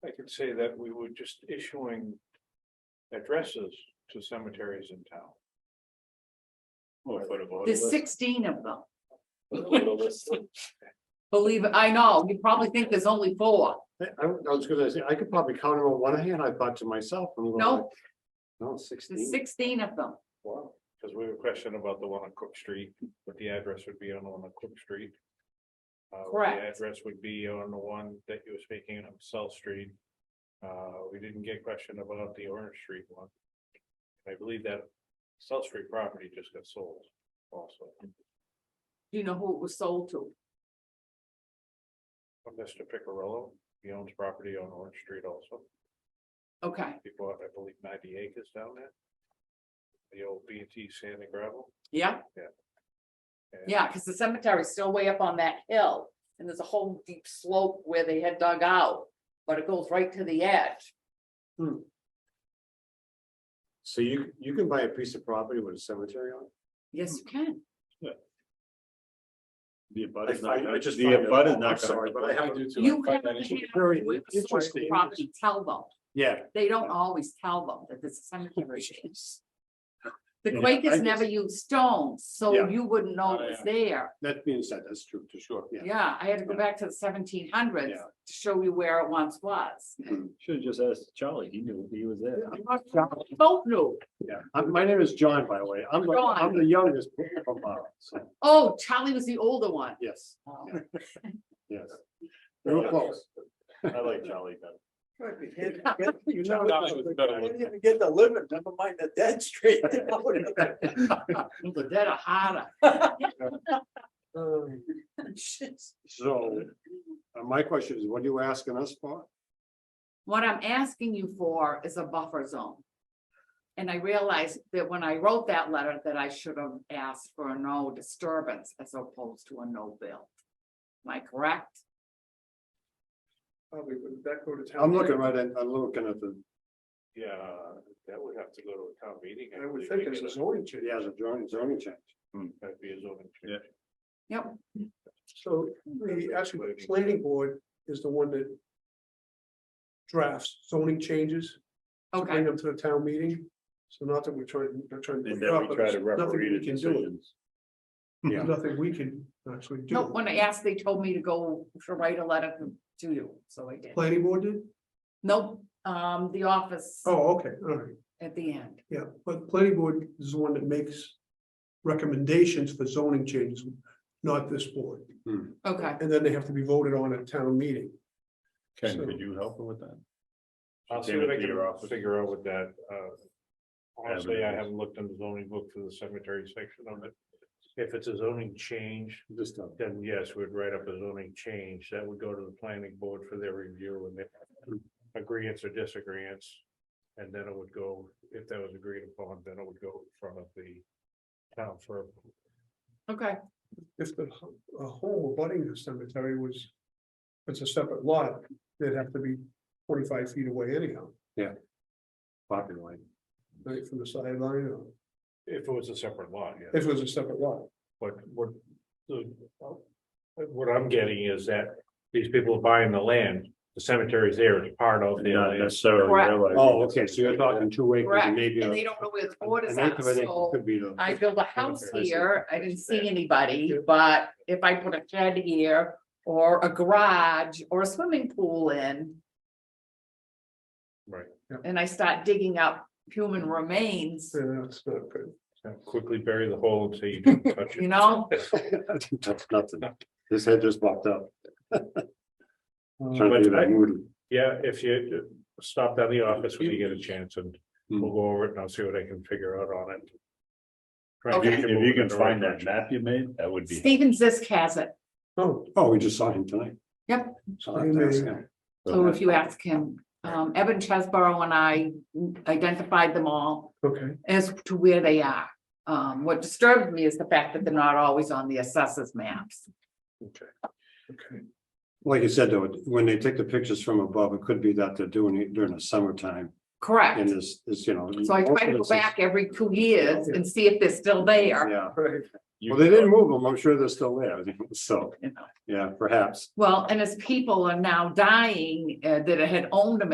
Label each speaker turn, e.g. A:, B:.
A: say that we were just issuing addresses to cemeteries in town.
B: We'll put a vote
C: There's
B: list.
C: sixteen of them.
B: Put a vote list.
C: Believe, I know, you probably think there's only four.
D: I, I was gonna say, I could probably count them on one hand, I thought to myself. I'm going
C: No.
D: like, No,
C: There's
D: sixteen.
C: sixteen of them.
A: Wow. Cause we were questioning about the one on Cook Street, what the address would be on the one on Cook Street. Uh, what the
C: Correct.
A: Address would be on the one that you were speaking of, South Street. Uh, we didn't get questioned about the Orange Street one. I believe that South Street property just got sold also,
C: Do you know who it was sold to?
A: Mr. Picarello, he owns property on Orange Street also.
C: Okay,
A: He bought, I believe, ninety acres down there. The old B and T sand and gravel.
C: yeah,
A: and-
C: yeah, because the cemetery's still way up on that hill. And there's a whole deep slope where they had dug out, but it goes right to the edge.
D: So you, you can buy a piece of property with a cemetery on it?
C: Yes, you can.
B: The abut
D: I
B: is not
D: find- I
B: gonna-
D: just
B: The
D: find it-
B: abut is
D: I'm
B: not.
D: sorry, but I have to-
C: You have to have
D: Very
C: whoever sold the
D: interesting.
C: property tell them.
D: Yeah.
C: They don't always tell them that there's a cemetery. The
D: Yeah, I
C: Quakers
D: guess-
C: never used stones, so
D: Yeah. Oh,
C: you wouldn't know it was there.
D: That being said, that's true, to sure, yeah.
C: Yeah, I had to go back to the seventeen hundreds
D: Yeah.
C: to show you where it once was.
B: Should have just asked Charlie, he knew, he was there.
D: I'm not John.
C: Both knew.
D: Yeah, I'm- my name is John, by the way. I'm, the- I'm the youngest from Boston, so,
C: Oh, Charlie was the older one.
D: yes,
C: Oh,
D: yes. We were close.
B: I like Charlie better.
D: You know,
B: John was better
D: I didn't
B: looking.
D: even get the living, never mind the dead street.
C: The dead are harder.
D: So, uh, my question is, what are you asking us for?
C: What I'm asking you for is a buffer zone. And I realized that when I wrote that letter that I should have asked for a no disturbance as opposed to a no bill. Am I correct?
A: Probably would that go to town?
D: I'm looking right at, I'm looking at the,
A: Yeah, that would have to go to a town meeting.
D: I would
A: believe,
D: think it's a
A: because
D: zoning change, yeah, it's a zoning, zoning change.
A: That'd be a zoning.
B: Yeah.
A: change.
C: Yep,
E: So the actually the planning board is the one that. Drafts zoning changes, to bring
C: okay,
E: them to the town meeting, so not that we're trying, not trying. to
B: And
E: put it
B: then
E: up,
B: we
E: but
B: try to
E: there's nothing
B: referee
E: we
B: the
E: can do.
B: decisions.
D: Yeah.
E: Nothing we can actually
C: no,
E: do,
C: when I asked, they told me to go to write a letter to you, so I did.
E: planning board did,
C: Nope, um, the office
E: oh, okay, all right,
C: at the end.
E: yeah, but planning board is the one that makes. Recommendations for zoning changes, not this board,
C: Okay,
E: and then they have to be voted on at town meeting.
B: Ken,
E: So-
B: could you help her with that?
A: I'll see what I
B: Came into your office.
A: can figure out with that, uh. Honestly, I
B: Avenue.
A: haven't looked in the zoning book for the cemetery section on it. If it's a zoning change,
D: This stuff.
A: then yes, we'd write up a zoning change. That would go to the planning board for their review and their agreeance or disagreeance. And then it would go, if that was agreed upon, then it would go in front of the town for
C: okay,
E: if the h- a home abutting the cemetery was. It's a separate lot, they'd have to be twenty-five feet away anyhow,
D: Property line.
E: right from the sideline, or
A: If it was a separate lot, yeah,
E: if it was a separate lot.
A: but what, the. What I'm getting is that these people are buying the land, the cemetery's there, it's part of their
B: Not
A: land.
B: necessarily.
C: Correct.
B: realizing
D: Oh,
B: it's-
D: okay, so you're talking two acres,
C: correct,
D: maybe.
C: and
D: a-
C: they don't know where the board is
D: an
C: at,
D: acre of an acre
C: so.
D: Could be the.
C: I build a house
D: I see.
C: here, I didn't see anybody, but if I put a shed here, or a garage, or a swimming pool in.
A: Right.
C: And I start digging up human remains,
E: Yeah, that's not good.
A: Quickly bury the hole and say you don't touch it.
C: you know,
D: That's nothing. His head just popped up. Trying
E: Um,
D: to do that noodle.
A: Yeah, if you uh, stop down the office when you get a chance and
D: Hmm.
A: we'll go over it and I'll see what I can figure out on it. Try and
B: If you-
C: Okay.
A: get
B: If you
A: moving in
B: can
A: the right
B: find that
A: direction.
B: map you made, that would be.
C: Stephen Zisk has it,
E: Oh,
D: Oh, we just saw him tonight.
C: Yep.
D: So I'll have to ask him.
C: so if you ask him, um, Evan Chesborough and I identified them all.
E: okay,
C: as to where they are. Um, what disturbed me is the fact that they're not always on the assessors maps.
E: okay.
D: Like you said, though, when they take the pictures from above, it could be that they're doing it during the summertime and
C: Correct.
D: this, this, you know.
C: So I try to go
D: it's-
C: back every two years and see if they're still there.
D: Yeah,
E: Right,
D: well, they didn't move them. I'm sure they're still there. So,
C: you know.
D: yeah, perhaps.
C: Well, and as people are now dying, uh, that had owned them